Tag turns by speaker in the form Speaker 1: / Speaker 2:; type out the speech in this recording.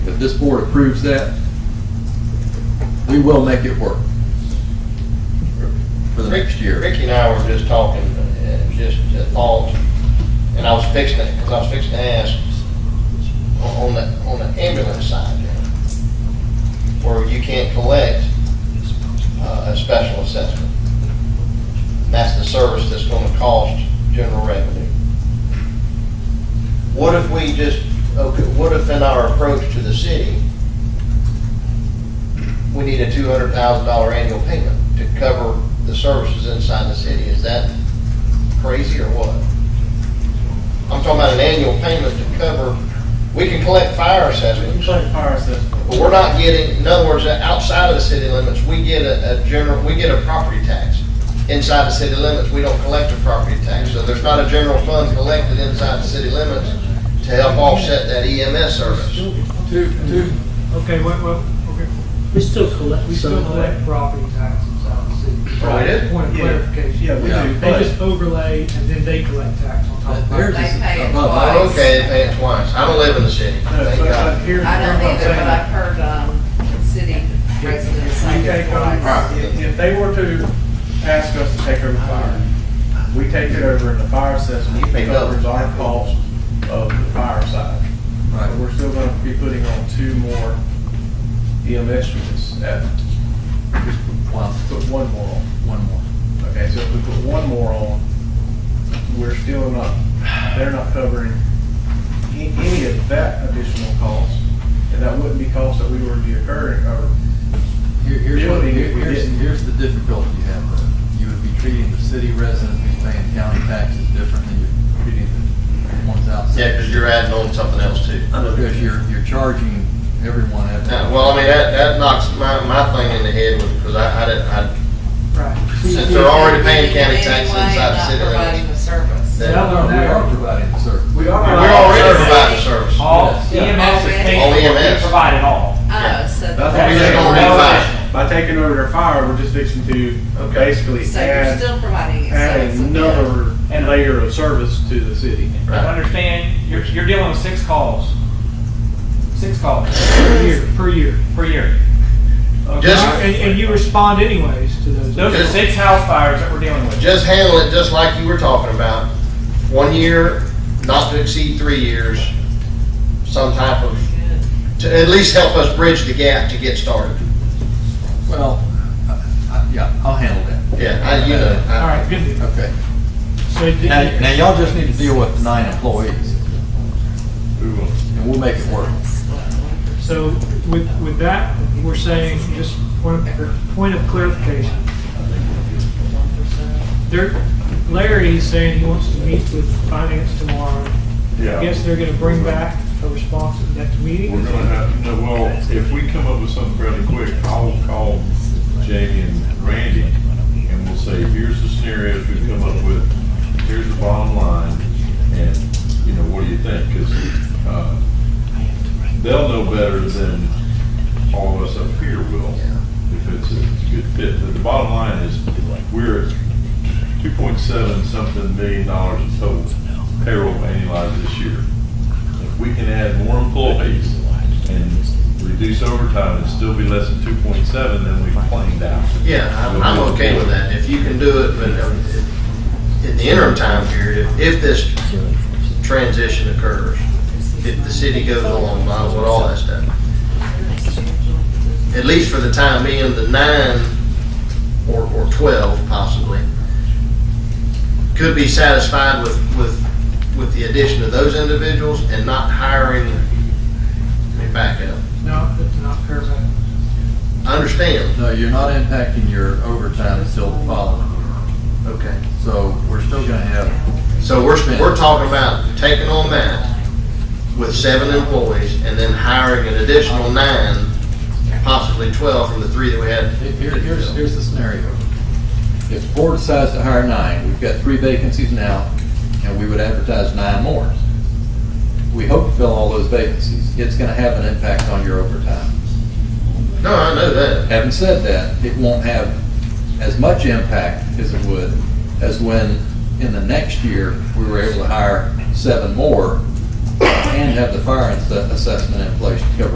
Speaker 1: this board approves that, we will make it work for the next year.
Speaker 2: Ricky and I were just talking, uh, just uh, thoughts, and I was fixing it, because I was fixing to ask, on on the, on the ambulance side, you know, where you can't collect uh, a special assessment. That's the service that's gonna cost general revenue. What if we just, okay, what if in our approach to the city, we need a two hundred thousand dollar annual payment to cover the services inside the city. Is that crazy or what? I'm talking about an annual payment to cover, we can collect fire assessments,
Speaker 3: fire assessment.
Speaker 2: but we're not getting, in other words, outside of the city limits, we get a, a general, we get a property tax. Inside the city limits, we don't collect a property tax, so there's not a general fund collected inside the city limits to help offset that EMS service.
Speaker 1: Two, two,
Speaker 3: Okay, what, what, okay,
Speaker 4: We still collect
Speaker 3: we
Speaker 4: some
Speaker 3: still
Speaker 4: of that.
Speaker 3: collect property taxes out of the city.
Speaker 2: Oh, we do?
Speaker 3: Point of
Speaker 5: Yeah.
Speaker 3: clarification.
Speaker 5: Yeah, we
Speaker 1: Yeah.
Speaker 5: do,
Speaker 3: They
Speaker 5: but
Speaker 3: just overlay and then they collect tax on top
Speaker 1: but
Speaker 3: of
Speaker 1: theirs
Speaker 3: that.
Speaker 1: is
Speaker 6: They pay it
Speaker 1: above
Speaker 6: twice.
Speaker 1: ours.
Speaker 2: Oh, Okay, they pay it twice. I don't live in the city,
Speaker 5: no,
Speaker 2: thank
Speaker 5: but uh,
Speaker 2: God.
Speaker 5: here, here's what
Speaker 6: I don't
Speaker 5: I'm
Speaker 6: either, but I've
Speaker 5: saying.
Speaker 6: heard, um, city residents say
Speaker 5: We
Speaker 6: it
Speaker 5: take
Speaker 6: twice.
Speaker 5: on, if if they were to ask us to take over fire, we take it over in the fire assessment,
Speaker 2: You pay double.
Speaker 5: covers our cost of the fire side. But
Speaker 1: Right,
Speaker 5: we're still gonna be putting on two more EMS units at,
Speaker 1: one,
Speaker 5: put one more on.
Speaker 1: one more.
Speaker 5: Okay, so if we put one more on, we're still not, they're not covering a- any of that additional cost. And that wouldn't be cost that we were incurring, or,
Speaker 1: Here, here's what,
Speaker 5: Building,
Speaker 1: here-
Speaker 5: if we
Speaker 1: here's,
Speaker 5: didn't.
Speaker 1: here's the difficulty you have though. You would be treating the city resident who's paying county taxes different than you're treating the ones outside.
Speaker 2: Yeah, because you're adding on something else too.
Speaker 1: Because you're, you're charging everyone at.
Speaker 2: Now, well, I mean, that, that knocks my, my thing in the head with, because I, I didn't, I,
Speaker 3: Right.
Speaker 2: since they're already paying county
Speaker 6: Anyway,
Speaker 2: taxes inside the
Speaker 6: not
Speaker 2: city
Speaker 6: providing
Speaker 2: limits.
Speaker 6: the service.
Speaker 2: that-
Speaker 1: No, no, we are providing the service.
Speaker 3: We
Speaker 2: We're
Speaker 3: are.
Speaker 2: already providing service. E
Speaker 7: All
Speaker 1: Yes.
Speaker 7: EMS is paid
Speaker 2: All
Speaker 7: for, we
Speaker 2: EMS.
Speaker 7: provide it all.
Speaker 6: Oh, so.
Speaker 5: That's
Speaker 2: We just gonna
Speaker 5: That's-
Speaker 2: refine.
Speaker 5: by taking over their fire, we're just fixing to basically
Speaker 6: So you're
Speaker 5: add,
Speaker 6: still providing it. so
Speaker 5: add
Speaker 6: it's a bit.
Speaker 5: another
Speaker 7: And- uh,
Speaker 5: layer of service to the city.
Speaker 2: Right.
Speaker 7: Understand, you're, you're dealing with six calls. Six calls
Speaker 3: Per year, per year.
Speaker 7: per year.
Speaker 2: Just-
Speaker 3: And, and you respond anyways to those.
Speaker 7: Those are
Speaker 2: Just-
Speaker 7: six house fires that we're dealing with.
Speaker 2: Just handle it just like you were talking about. One year, not to exceed three years, some type of, to at least help us bridge the gap to get started.
Speaker 1: Well, I- I- yeah, I'll handle that.
Speaker 2: Yeah, I, you know. I-
Speaker 3: All right, good deal.
Speaker 1: Okay.
Speaker 3: So did
Speaker 1: Now,
Speaker 3: you-
Speaker 1: now y'all just need to deal with the nine employees. And we'll make it work.
Speaker 3: So with, with that, we're saying, just point of, point of clarification. There, Larry is saying he wants to meet with finance tomorrow. I guess they're gonna bring back a response at the next meeting.
Speaker 8: We're gonna have, no, well, if we come up with something fairly quick, I'll call Jamie and Randy, and we'll say, here's the scenarios we've come up with, here's the bottom line, and, you know, what do you think? Because, uh, they'll know better than all of us up here will, if it's a it's a good fit. But the bottom line is, we're at two point seven something million dollars in total payroll annualized this year. If we can add more employees and reduce overtime and still be less than two point seven, then we've planned out.
Speaker 2: Yeah, I'm, I'm okay with that, if you can do it, but um, in the interim time period, if, if this transition occurs, if the city goes along by with all that stuff, at least for the time being, the nine or, or twelve possibly, could be satisfied with, with, with the addition of those individuals and not hiring, let me back up.
Speaker 3: No, that's not perfect.
Speaker 2: I Understand,
Speaker 1: No, you're not impacting your overtime until the following year.
Speaker 2: okay.
Speaker 1: So we're still gonna have,
Speaker 2: So we're, we're talking about taking on that with seven employees and then hiring an additional nine, possibly twelve from the three that we had.
Speaker 1: here, here's, here's the scenario. If the board decides to hire nine, we've got three vacancies now, and we would advertise nine more. We hope to fill all those vacancies. It's gonna have an impact on your overtime.
Speaker 2: No, I know that.
Speaker 1: Having said that, it won't have as much impact as it would as when in the next year, we were able to hire seven more and have the fire ass- assessment in place to cover